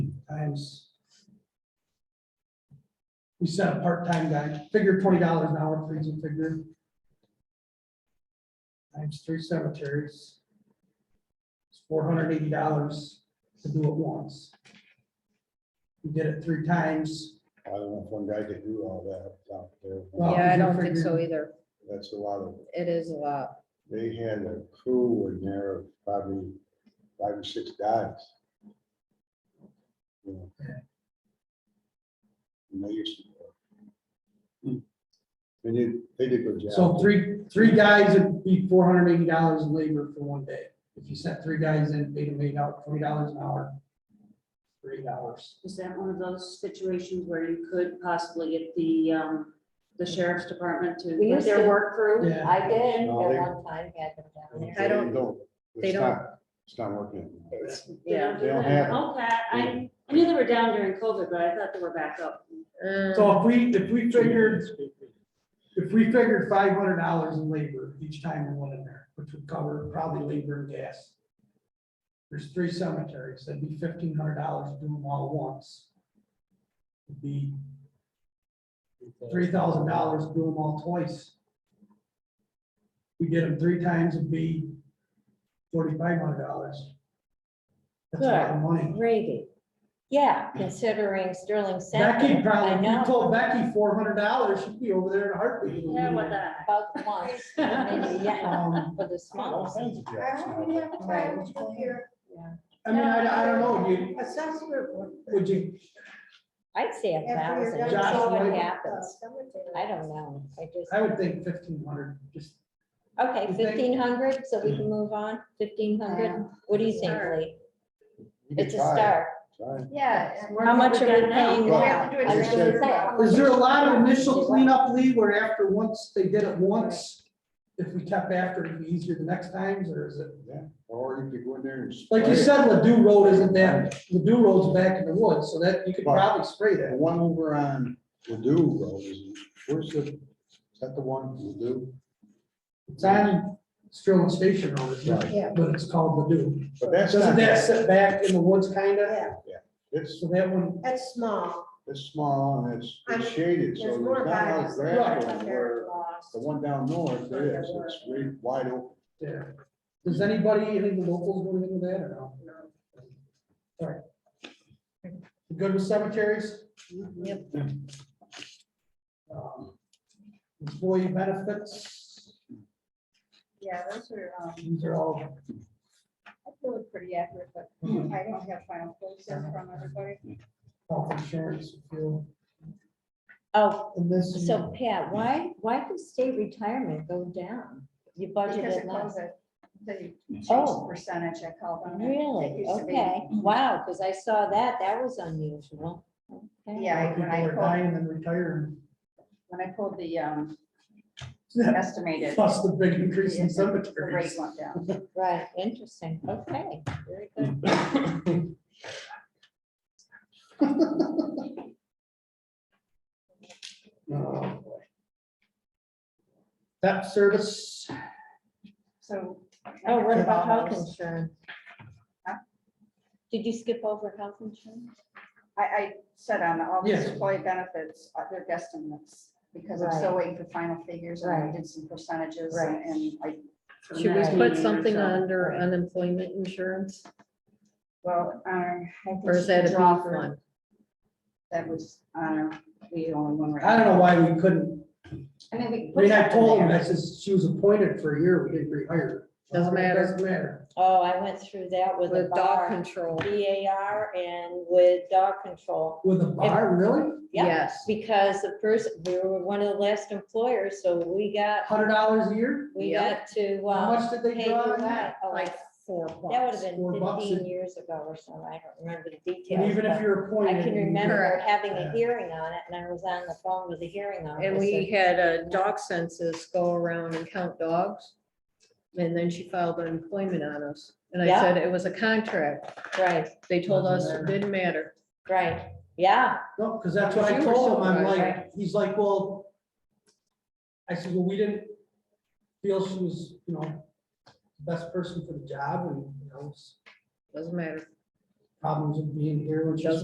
times. We sent a part-time guy, figure twenty dollars an hour, please, and figure. Times three cemeteries. It's four hundred eighty dollars to do it once. We did it three times. I don't know if one guy could do all that out there. Well- Yeah, I don't think so either. That's a lot of, It is a lot. they had a crew in there, of probably five or six guys. You know. And they used to. They did, they did good job. So three, three guys would be four hundred eighty dollars in labor for one day. If you sent three guys in, paid them eight out, twenty dollars an hour. Three dollars. Is that one of those situations where you could possibly get the, um, the sheriff's department to We put used their to work? work crew, Yeah. I did, at No, they- one time had them down there. I don't- It's they don't- not- It's not working. It's- Yeah. They don't have it. Okay, I, I knew they were down during COVID, but I thought they were back up. So if we, if we figured, if we figured five hundred dollars in labor each time we went in there, which would cover probably labor and gas. There's three cemeteries, that'd be fifteen hundred dollars to do them all once. It'd Be three thousand dollars to do them all twice. We did them three times, it'd be forty-five hundred dollars. That's a lot of money. Brady, yeah, considering Sterling Becky Center, I probably, if you know, told Becky four hundred dollars, she'd be over there in a heartbeat. Yeah, what the? about once, maybe, yeah, Um, for the All small. kinds of jobs I now. want to have a try with you here. I mean, I, I don't know, you, Assessment. would you, I'd say a after you're thousand, done see what Joshua. happens. cemetery. I don't know, I just, I would think fifteen hundred, just, okay, You think- fifteen hundred, so we can move on, fifteen hundred, what do you think, Sure. Lee? You could It's a try it, start, try it. Yeah. how much are we paying Well, I now? I was just gonna said- say, is there a lot of initial cleanup, Lee, where after once, they did it once? If we kept after, it'd be easier the next times, or is it? Yeah, or you could go in there and. Like you spray said, it. Ladue Road isn't that, Ladue Road's back in the woods, so that, you could probably spray The that. one over on Ladue Road, is- where's the, is that the one, Ladue? It's on Sterling Station Road, isn't it? Yeah. but it's called Ladue. But that's Doesn't not, that sit back in the woods, kinda? Yeah, it's, So that one, That's small. it's small and it's it's shaded, so There's there's more not a lot guys. of that grass are going where lost. the one down north, there is, it's really wide open. there. Does anybody, any of the locals want anything with that or no? Alright. You Good with cemeteries? Yep. Um, Employee benefits, Yeah, those are, um, these are all, I feel it's pretty accurate, but I don't have final quotes there from everybody. health insurance, fuel, Oh, and this. is- so Pat, why, why did state retirement go down? You Because budgeted it less. was a, the Oh. change percentage I called on. it. It Really? used to be- Oh, Okay, Mm-hmm. wow, because I saw that, that was unusual. Okay. Yeah, I- People when I are pulled, dying and retiring. when I pulled the, um, That's estimated. Plus the big increase in the- The cemeteries. rate went down. Right, interesting, okay, very good. Mm-hmm. Oh, boy. That service, So. Oh, what about health those? insurance? Huh? Did you skip over health insurance? I, I said on all these Yes. employee benefits, uh, they're guesstimates, because I'm still waiting for final figures, and I Right. did some percentages, Right. and I. Should we Right. put something under under unemployment insurance, Well, um. or is that a beef one? That was, uh, the only one. I don't know why we couldn't, I mean, we. I mean, I told him, I says, she was appointed for a year, we didn't rehire her. Doesn't matter. Doesn't matter. Oh, I went through that with a with dog bar, control? B A R and with dog control. With a bar, really? Yeah, Yes, because the person, we were one of the last employers, so we got, Hundred dollars a year? we Yep. got to. How uh, much did they pay draw you on that? out. Oh, like four That would have bucks. Four been bucks fifteen is- years ago or so, I don't remember the And details, even if but you're I appointed. can you- remember Correct. having a Yeah. hearing on it, and I was on the phone with the hearing officer. And we had a dog census go around and count dogs. And then she filed unemployment on us. And I Yeah. said it was a contract. Right, They told us Doesn't it matter. didn't matter. right, yeah, No, because that's what I You were told him, I'm supervised, like, right? he's like, well. I said, well, we didn't feel she was, you know, the best person for the job and, you know, Doesn't matter. problems of being here, which is Doesn't